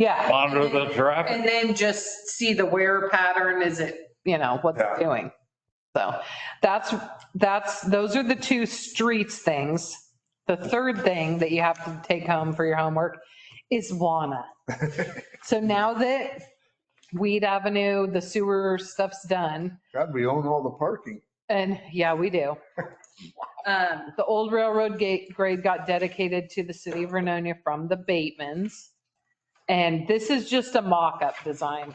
Yeah. monitor the traffic. And then just see the wear pattern. Is it, you know, what's it Yeah. doing? So that's, that's, those are the two streets things. The third thing that you have to take home for your homework is WANA. So now that Weed Avenue, the sewer stuff's done, God, we own all the parking. and yeah, we do. Um, The old railroad gate grade got dedicated to the city of Vernonia from the Batemans. And this is just a mock-up design.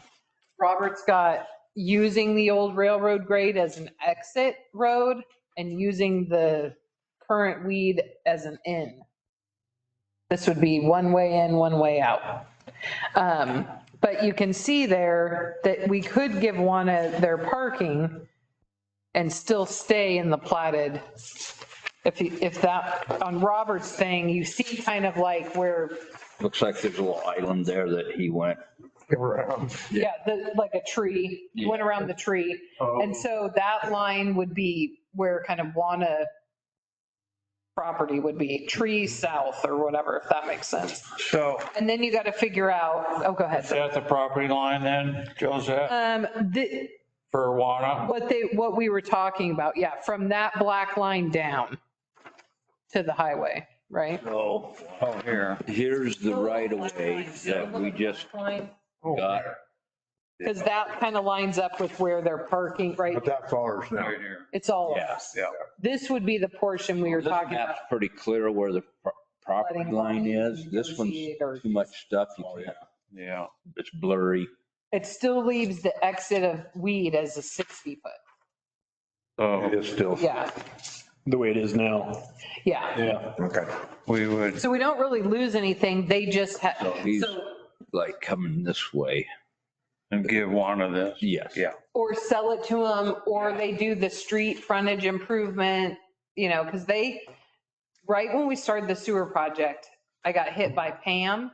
Robert's got using the old railroad grade as an exit road and using the current weed as an in. This would be one way in, one way out. Um, But you can see there that we could give one of their parking and still stay in the platted. If, you- if that, on Robert's thing, you see kind of like where Looks like there's a little island there that he went. around. Yeah, the, like a tree, went around the tree. And so that line would be where kind of Wana property would be, tree south or whatever, if that makes sense. So And then you got to figure out, oh, go is ahead. that the property line then, Joseph, Um, the, for Wana? what they, what we were talking about, yeah, from that black line down to the highway, right? No. Oh, here. Here's the Oh, right of way that we just Oh, got. Because that kind of lines up with where they're parking, right? But that's ours now. Right here. It's all, Yeah. Yeah. this would be the portion we were This talking about. map's pretty clear where the pro- property Letting line is. lines This one's negotiate or- too much stuff. You can't, Yeah. it's blurry. It still leaves the exit of weed as a 60 foot. So It is still, Yeah, the way it is now. yeah. Yeah. okay. we would, So we don't really lose anything. They just have, So he's so, like coming this way. give Wana this. Yes. Yeah. or sell it to them, or they do the street frontage improvement, you know, because they, right when we started the sewer project, I got hit by Pam.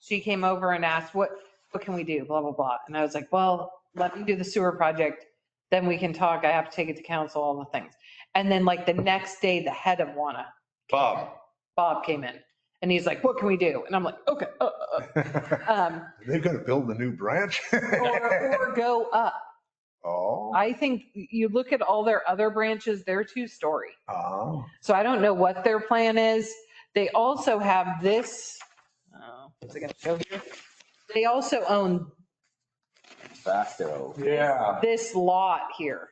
She came over and asked, what, what can we do? Blah, blah, blah. And I was like, well, let me do the sewer project. Then we can talk. I have to take it to council, all the things. And then like the next day, the head of WANA Bob, Bob came in and he's like, what can we do? And I'm like, okay. uh, uh, uh." Um, They're gonna build the new branch? Or, or go up. Oh, I think you look at all their other branches, they're two story. oh, So I don't know what their plan is. They also have this. oh, Is it going to show here? They also own Facto. yeah. this lot here.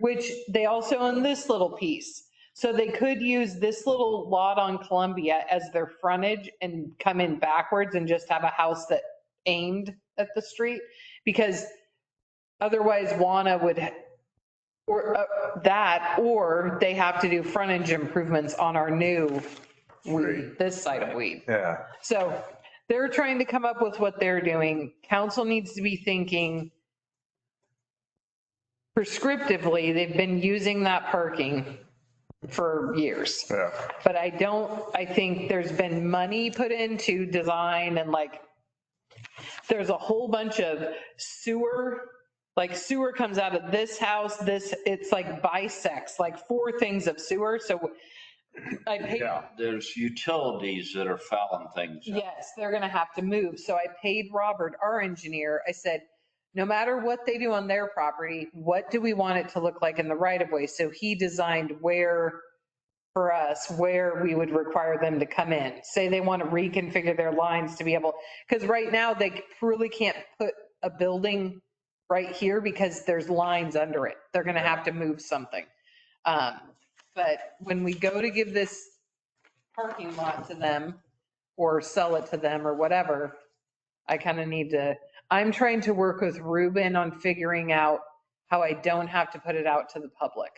Which they also own this little piece. So they could use this little lot on Columbia as their frontage and come in backwards and just have a house that aimed at the street. Because otherwise Wana would, or uh, that, or they have to do frontage improvements on our new weed, this side of weed. Yeah. So they're trying to come up with what they're doing. Council needs to be thinking prescriptively, they've been using that parking for years. Yeah. But I don't, I think there's been money put into design and like, there's a whole bunch of sewer, like sewer comes out of this house, this, it's like bisects, like four things of sewer. So I paid There's utilities that are fouling things. up. Yes, they're going to have to move. So I paid Robert, our engineer, I said, no matter what they do on their property, what do we want it to look like in the right of way? So he designed where, for us, where we would require them to come in. Say they want to reconfigure their lines to be able, because right now they really can't put a building right here because there's lines under it. They're going to have to move something. Um, But when we go to give this parking lot to them, or sell it to them or whatever. I kind of need to, I'm trying to work with Ruben on figuring out how I don't have to put it out to the public.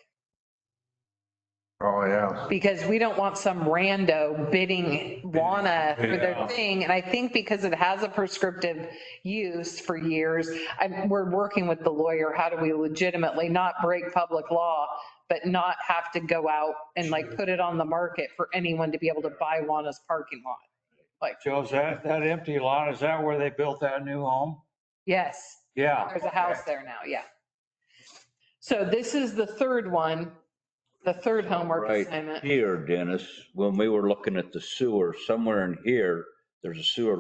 Oh, yeah. Because we don't want some rando bidding wanna for their Yeah. thing. And I think because it has a prescriptive use for years, I, we're working with the lawyer, how do we legitimately not break public law, but not have to go out and like put it on the market for anyone to be able to buy Wana's parking lot? Joseph, that empty lot, is that where they built that new home? Yes. Yeah. There's a house there now, yeah. So this is the third one, the third homework Right. assignment. Here, Dennis, when we were looking at the sewer, somewhere in here, there's a sewer line